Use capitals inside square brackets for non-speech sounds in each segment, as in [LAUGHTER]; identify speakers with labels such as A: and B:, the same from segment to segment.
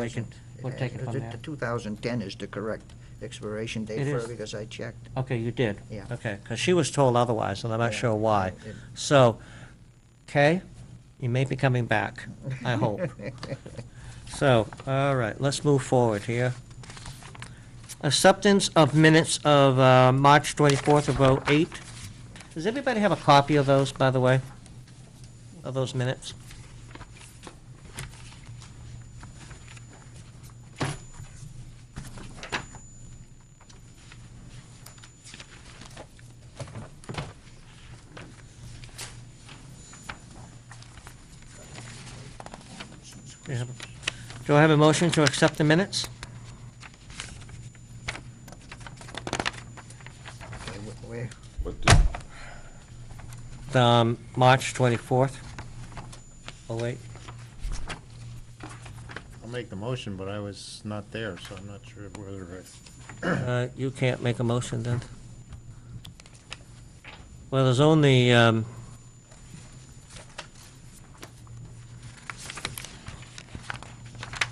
A: We can, we'll
B: Uh,
A: take it from
B: the-
A: there.
B: The 2010 is the correct expiration date
A: It
B: for
A: is.
B: it, because I checked.
A: Okay, you did?
B: Yeah.
A: Okay, because she was told otherwise, and I'm not
B: Yeah.
A: sure why.
B: It-
A: So, Kay, you may be coming back, I
B: [LAUGHS]
A: hope. So, all right, let's move forward here. Acceptance of minutes of uh, March 24th of '08. Does everybody have a copy of those, by the way? Of those minutes? Do you have- Do I have a motion to accept the minutes?
B: Okay, wh- Where,
C: What did,
A: The, um, March 24th? Oh, wait.
D: I'll make the motion, but I was not there, so I'm not sure whether I...
A: Uh, You can't make a motion then. Well, there's only, um,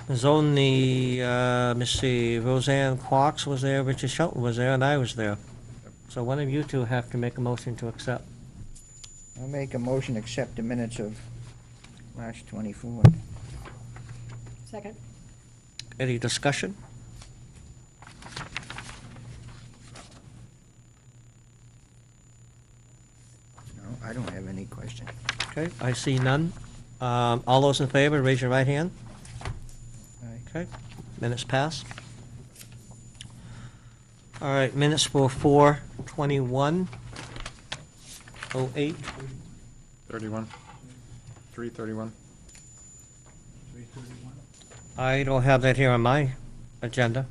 A: there's only, uh, let me see, Roseanne Quox was there, Richard Shelton was there, and I was there. So one of you two have to make a motion to accept.
B: I'll make a motion, accept the minutes of March 24th.
E: Second.
A: Any discussion?
B: No, I don't have any question.
A: Okay, I see none. Um, All those in favor, raise your right hand.
B: Aye.
A: Okay, minutes pass. All right, minutes for four twenty-one oh eight.
D: 31? 331?
A: I don't have that here on my agenda.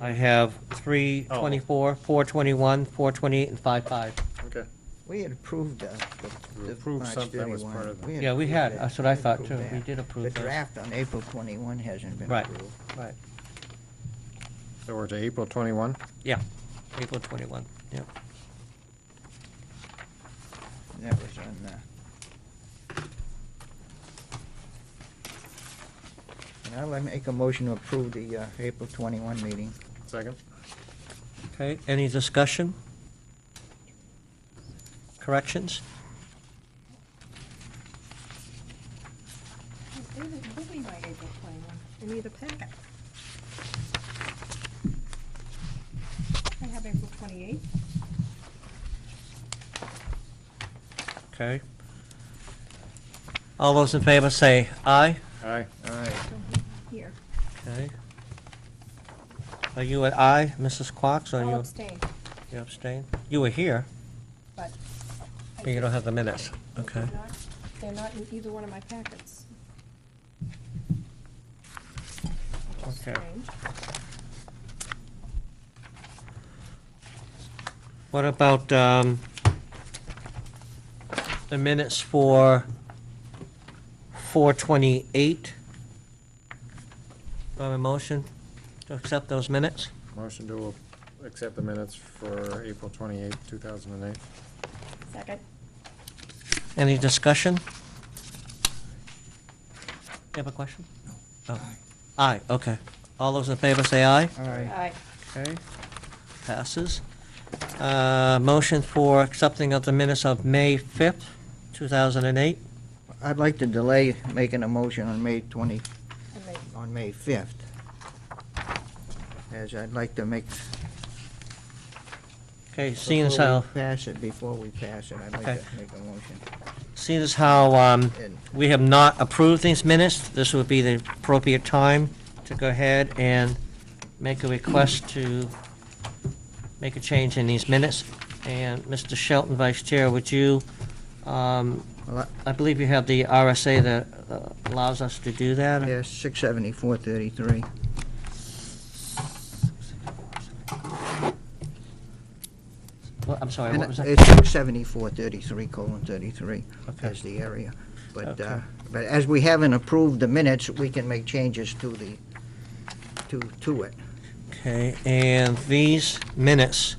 A: I have three
D: Oh.
A: twenty-four, four twenty-one, four twenty-eight, and five five.
D: Okay.
B: We had approved uh, the.
D: We
B: the
D: approved
B: March
D: something that was
B: 31.
D: part of the-
A: Yeah, we
B: approved
A: had.
B: that.
A: That's what I
B: We
A: thought,
B: approved
A: too.
B: that.
A: We did approve
B: The
A: those.
B: draft on April 21 hasn't been
A: Right.
B: approved.
A: Right.
D: So we're to April 21?
A: Yeah, April twenty-one, yeah.
B: That was on uh, the... Now I make a motion to approve the uh, April 21 meeting.
D: Second?
A: Okay, any discussion? Corrections?
E: David, give me my April 21. I need a packet. I have April 28.
A: Okay. All those in favor say aye.
D: Aye.
B: All right.
E: Don't have it here.
A: Okay. Are you an aye, Mrs. Quox, or
E: I'll
A: you
E: abstain,
A: you abstain? You were here,
E: but. I
A: but you don't
E: just-
A: have the minutes. Okay.
E: They're not- They're not in either one of my packets. Which is
A: Okay.
E: strange.
A: What about um, the minutes for 4:28? Do I have a motion to accept those minutes?
D: Motion to accept the minutes for April 28, 2008.
E: Second.
A: Any discussion? You have a question? No. Aye, okay. All those in favor say aye.
B: All right.
E: Aye.
A: Okay. Passes. Uh, Motion for accepting of the minutes of May 5th, 2008.
B: I'd like to delay making a motion on May 20,
E: And they-
B: on May 5th, as I'd like to make...
A: Okay, seeing as
B: before
A: how,
B: we Pass it, before we pass it, I'd like
A: Okay.
B: to make a motion.
A: seeing as how um,
B: And
A: we have not approved these minutes, this would be the appropriate time to go ahead and make a request to make a change in these minutes. And Mr. Shelton, Vice Chair, would you, um,
B: well,
A: I believe you have the RSA that uh, allows us to do that?
B: I- Yes, 67433.
A: Well, I'm sorry,
B: And uh,
A: what was
B: It's
A: that?
B: 67433, colon 33,
A: Okay.
B: as the area. But, uh,
A: Okay.
B: but as we haven't approved the minutes, we can make changes to the, to, to it.
A: Okay, and these minutes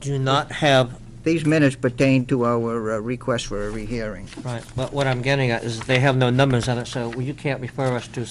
A: do not have,
B: These minutes pertain to our uh, request for a rehearing.
A: right, but what I'm getting at is they have no numbers on it, so you can't refer us to